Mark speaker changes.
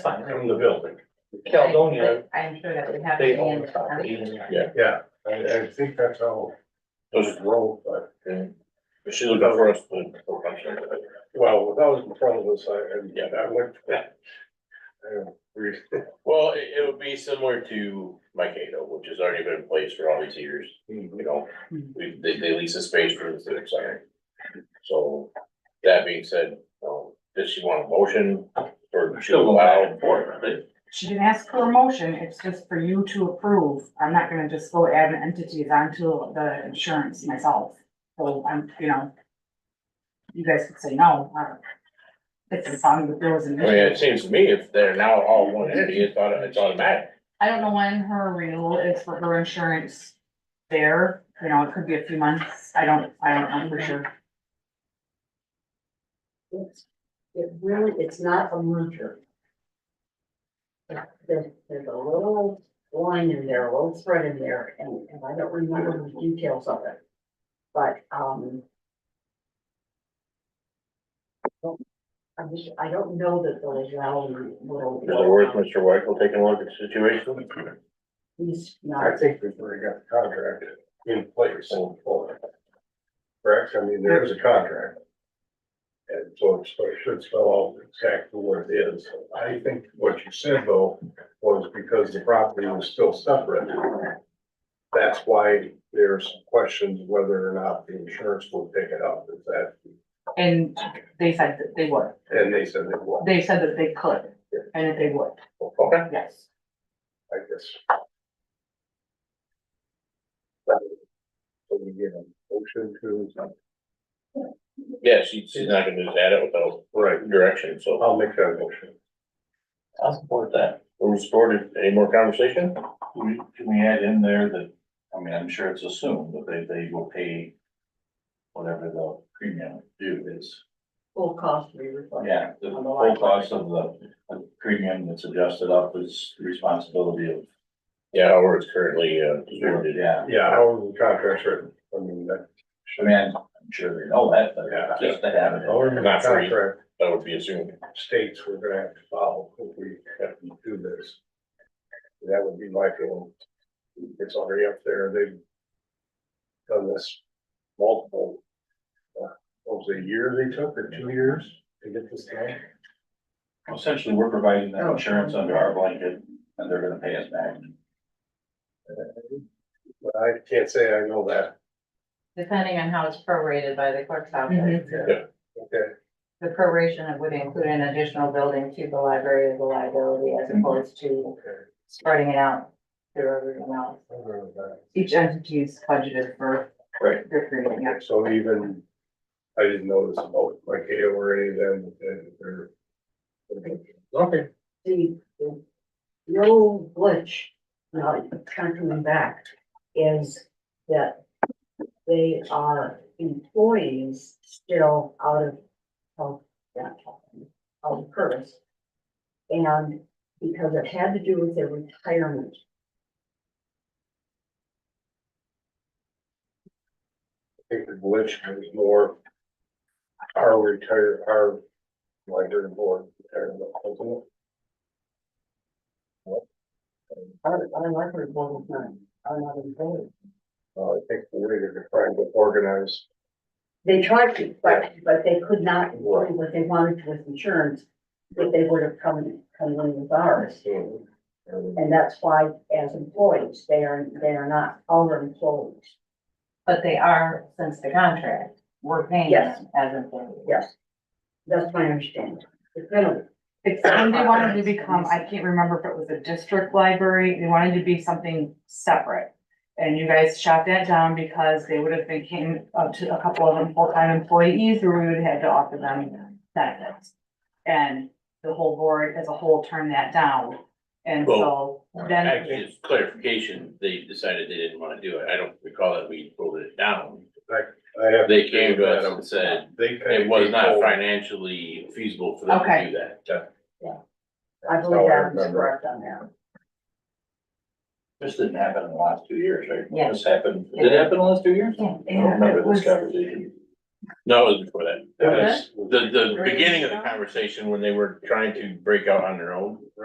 Speaker 1: fine, from the building.
Speaker 2: Caledonia,
Speaker 3: I'm sure that would have. to
Speaker 2: they
Speaker 3: be
Speaker 2: own
Speaker 3: in
Speaker 2: the
Speaker 3: the
Speaker 2: property.
Speaker 3: contract.
Speaker 1: Yeah.
Speaker 4: Yeah, I, I think that's how
Speaker 5: Does
Speaker 4: it's rolled, but,
Speaker 5: it, is she looking for us to?
Speaker 4: well, that was in front of us, I, and
Speaker 5: Yeah.
Speaker 4: I went. I re-
Speaker 5: Well, it, it would be similar to Mikado, which has already been in place for all these years, you know, we, they, they lease a space for the civic center. So, that being said, um, does she want a motion or to
Speaker 1: Still go back
Speaker 5: allow
Speaker 1: and forth, right?
Speaker 6: She didn't ask for a motion, it's just for you to approve. I'm not gonna just go add an entity onto the insurance myself. So I'm, you know. You guys could say no, I don't. It's a song that there was
Speaker 5: I
Speaker 2: Oh,
Speaker 6: an
Speaker 5: mean, it
Speaker 6: issue.
Speaker 5: seems to me if they're now all one entity, it's auto, it's automatic.
Speaker 6: I don't know when her renewal is for her insurance there, you know, it could be a few months. I don't, I don't know for sure.
Speaker 7: It's, it really, it's not a merger. There's, there's a little line in there, a little thread in there, and, and I don't remember the details of it. But, um. I just, I don't know that the legality will.
Speaker 5: In other words, Mr. White will take a look at the situation.
Speaker 7: He's
Speaker 4: I
Speaker 7: not,
Speaker 4: think we've already got the contract in place. Correct, I mean, there is a contract. And so it's- so it should spell out exactly what it is. I think what you said though, was because the property was still separate. That's why there's questions whether or not the insurance will pick it up, is that,
Speaker 6: And they said that they would.
Speaker 4: and they said it will,
Speaker 6: They said that they could and that they would,
Speaker 5: Okay,
Speaker 6: yes.
Speaker 4: I guess. So we get a motion to,
Speaker 5: yeah, she, she's not gonna just add it without
Speaker 4: right,
Speaker 5: direction, so.
Speaker 4: I'll make that motion.
Speaker 1: I'll support that.
Speaker 5: We're supported, any more conversation?
Speaker 8: We- Can we add in there that, I mean, I'm sure it's assumed that they, they will pay whatever the premium due is.
Speaker 7: full cost to be reflected.
Speaker 8: Yeah, the whole cost of the, the premium that's adjusted up is the responsibility of,
Speaker 5: Yeah, however, it's currently, uh, distributed.
Speaker 8: yeah.
Speaker 4: Yeah, how the contract's written, I mean, that.
Speaker 8: I mean, I'm sure they know that, but
Speaker 4: Yeah.
Speaker 8: just to have it.
Speaker 4: However, the
Speaker 5: Not free.
Speaker 4: contract
Speaker 5: that would be assumed.
Speaker 4: states we're gonna have to follow if we have to do this. That would be my feeling. It's already up there, they've done this multiple. uh, What was it, a year they took or two years to get this done?
Speaker 8: Essentially, we're providing them insurance under our blanket and they're gonna pay us back.
Speaker 4: But I can't say I know that,
Speaker 3: Depending on how it's prorated by the clerk's
Speaker 6: Mm-hmm.
Speaker 3: office,
Speaker 4: okay,
Speaker 3: the proration would include an additional building to the library as a liability
Speaker 6: Mm-hmm.
Speaker 3: as opposed to
Speaker 4: okay.
Speaker 3: spreading it out through everyone else.
Speaker 4: I don't know that.
Speaker 6: Each entity is budgeted for.
Speaker 5: Right.
Speaker 6: Their premium, yeah.
Speaker 4: So even, I didn't notice about like they or any of them, that they're. Okay.
Speaker 7: the, the the old glitch, now it's kind of coming back, is that they are employees still out of, of, that, of Curtis. And because it had to do with their retirement.
Speaker 4: I think the glitch was more. Our retire, our, like, their board, retirement, wasn't it?
Speaker 7: I, I like her one time, I'm not employed.
Speaker 4: Uh, I think we're trying to organize,
Speaker 7: They tried to, but, but they could not employ what they wanted with insurance, but they would have come, come in with ours.
Speaker 4: so, um,
Speaker 7: And that's why as employees, they are, they are not our employees.
Speaker 3: But they are, since the contract, we're paying
Speaker 7: Yes.
Speaker 3: them as employees.
Speaker 7: Yes. That's my understanding. It's been,
Speaker 6: It's when they wanted to become, I can't remember if it was a district library, they wanted to be something separate. And you guys shot that down because they would have became up to a couple of them full-time employees, or we would have had to offer them benefits. And the whole board as a whole turned that down, and so then.
Speaker 5: Actually, it's clarification, they decided they didn't wanna do it, I don't recall that we pulled it down.
Speaker 4: I have.
Speaker 5: They came to us and said
Speaker 4: They. kinda
Speaker 5: it was not
Speaker 4: came
Speaker 5: financially feasible for them to
Speaker 6: Okay.
Speaker 5: do that.
Speaker 7: I
Speaker 4: That's
Speaker 7: believe
Speaker 4: how I
Speaker 7: I was
Speaker 4: remember.
Speaker 7: correct on that.
Speaker 8: This didn't happen in the last two years, right?
Speaker 3: Yeah.
Speaker 8: This happened, did it happen in the last two years?
Speaker 3: Yeah.
Speaker 8: I don't
Speaker 6: And it
Speaker 8: remember
Speaker 6: was-
Speaker 8: this conversation.
Speaker 5: No, it was before that.
Speaker 4: That's-
Speaker 5: The, the beginning of the conversation when they were trying to break out on their own.